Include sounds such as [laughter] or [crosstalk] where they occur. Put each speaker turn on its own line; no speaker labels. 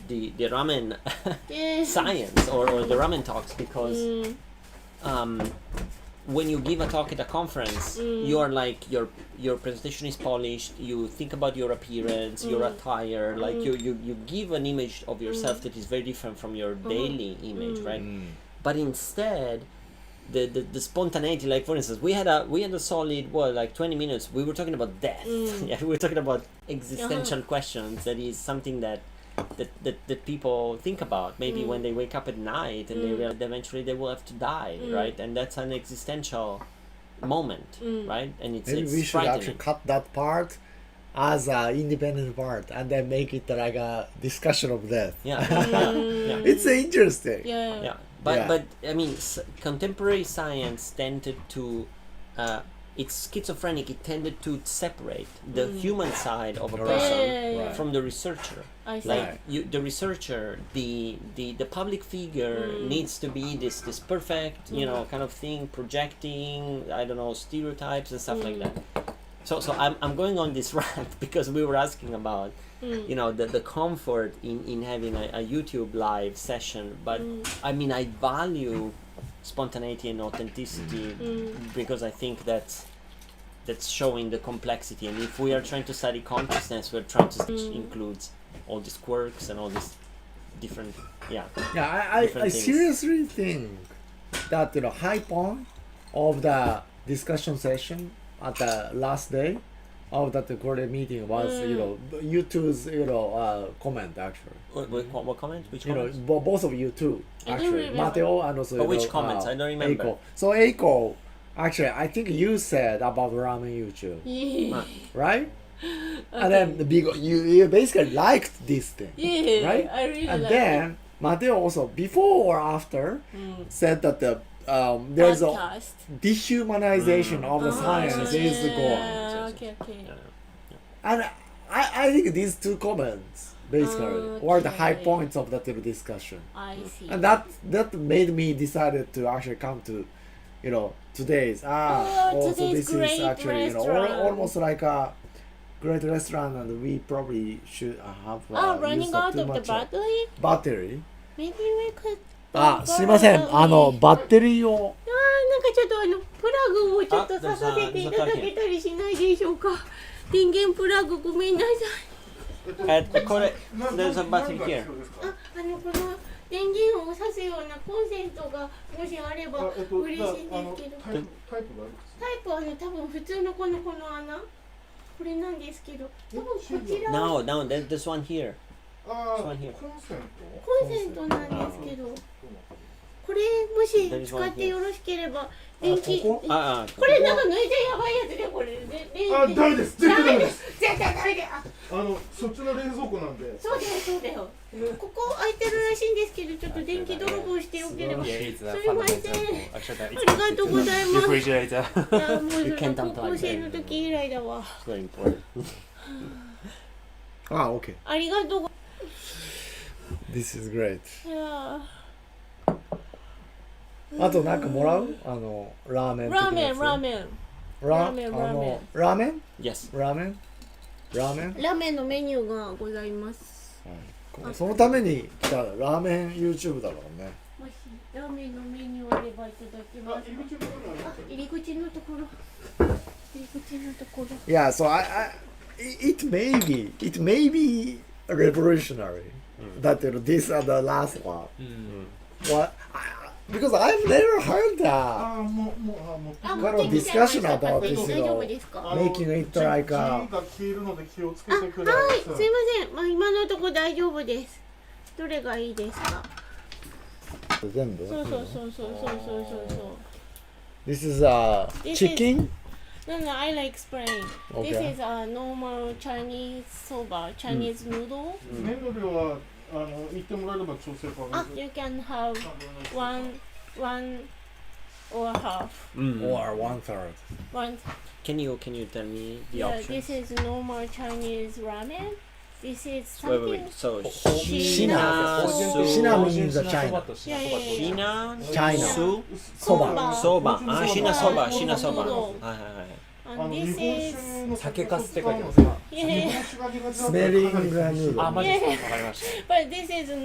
the the ramen [laughs]
Yes.
science or, or the ramen talks because
Mm,
um, when you give a talk at a conference,
Mm.
you are like your your presentation is polished. You think about your appearance, your
Mm.
attire. Like
Mm.
you, you you give an image of yourself that is very different from your daily image,
Mm.
right?
Mm.
But instead. The, the, the spontaneity like for instance we had a we had a solid what like 20 minutes we were talking about death [laughs]
Mm. Uh-huh.
yeah we were talking about existential questions that is something that that, that, that people think about maybe
Mm.
when they wake up at night and they
Mm.
realize that eventually they will have to die
Mm.
right and that's an existential moment
Mm.
right and it's,
Maybe
it's
we should
frightening
actually cut that part as an independent part and then make it like a discussion of death.
yeah [laughs] yeah, yeah.
[laughs] It's interesting.
yeah.
yeah but
Yeah.
but i mean s- contemporary science tended to uh, it's schizophrenic it tended to separate the human side of a
Right.
person
Mm. Yeah.
from the researcher
I see.
like
Right.
you the researcher the the the public figure
Mm.
needs to be this this perfect you know kind of thing projecting i don't know stereotypes and stuff
Mm.
like that so so i'm, I'm going on this [laughs] rant because we were asking about you know the, the comfort in in having a, a youtube live session but
[laughs]
i mean i value spontaneity and authenticity
Mm.
because i think that's that's showing the complexity and if we are trying to study consciousness we're trying to
Mm.
which includes all these quirks and all these different yeah
Yeah, I, I, I
Different things.
seriously think that you know high point of the discussion session at the last day of that recorded meeting was you know you two's you know uh, comment actually.
what, what, what comment which
You know,
comment
bo- both of you two
I don't
actually,
remember.
Mateo and also.
But
you
which
know,
comments?
uh,
I don't remember.
Eiko. So Eiko, actually, I think you said about ramen YouTube,
Yeah.
right? And then the big, you you basically liked this thing,
Yeah,
right?
I really
and
like
then Mateo also before or after
Mm.
said that the um, there's a
Podcast.
dehumanization
Mm.
of the science is the goal,
Ah, yeah. Okay, okay.
Yeah.
and I, I think these two comments basically were the high
Okay.
points of that little discussion.
I see.
and that that made me decided to actually come to you know today's ah
Oh,
also
today's
this is
great
actually you know al-
restaurant.
almost like a great restaurant and we probably should uh, have uh,
oh, running
used up
out
too
of the
much, uh,
battery?
battery Ah,
Maybe we could.
あすいませんあのバッテリーを
あーなんかちょっとあのプラグをちょっと
あ
刺させていただけ
刺
たりしないでしょうか電源プラグごめんなさい
At Kokore, there's a battery here
ああのこの電源を刺すようなコンセントがもしあれば嬉しいんですけど、タイプはあの多分普通のこのこの穴これなんですけど多分こちら
no
は
no there, there's one here this one here
コンセントなんですけどこれもし使ってよろしければ電気
ここ
ah, ah,
これなんか抜いちゃやばいやつでこれで
あ
電気
ダメです絶対ダメです
絶対ダメだよあ
あのそっちの冷蔵庫なんで
そうだよそうだよここ空いてるらしいんですけどちょっと電気泥棒してよければ
Yeah,
い
it's a
[laughs] Sorry,
fundamental.
Martin.
Actually, that
あ [laughs] りがとうございます
refrigerator.
やもうそ
You
れ
can't
高
unplug
校生の時以来だわ
it's very important
あ OK
ありがとうご
Ah, This is great
いや
あとなんかもらうあのラーメン
ー
的な
ラーメ
や
ン
つ
ラーメン
ラ
ラーメン
あのラーメン
yes
ラーメンラーメン
ラーメンのメニューがございます
そのために来たラーメン YouTube だろうね
もしラーメンのメニューあればいただきます
入り口のところに
あ
あ
入り口のところ入り口のところ
Yeah, so I, I it it may be it may be revolutionary that you know, these are the last one.
Mm.
What? I, because I've never heard
あ
that.
ーもうもうあーもう
あ
これ
持ってきちゃいました
ディスカッションアバウト
大
ですよ
丈夫ですか
あの
Making it like a-
字が消えるので気をつけ
あ、は
て
い、すい
く
ま
ださい
せん。まあ今のとこ大丈夫です。どれがいいですか。
全部
そうそうそうそうそうそうそうそ
This is a
This is-
chicken.
う。No, no, I like explain.
Okay.
This is a normal Chinese soba, Chinese noodle.
麺の量はあの言ってもらえれば調整可
あ
能、です
you can have one, one or half,
Or one third.
one.
Mm. can you can you tell me the
Yeah,
options
this is normal Chinese ramen. This is
wait wait
something.
wait so
Shina-
Shina
shinasu
means a China.
Yeah, yeah, yeah.
shina
China.
su
そば
Soba.
そばあ、シナそば、シナそば。
そう
はいはいはい。
あ
あの
and
日
this
本
is
酒の
酒かすって書いてます
日
あ
[laughs] yeah
本酒が苦手だったら
Smelling
かなり
noodle
あマジですかわかりました
but this is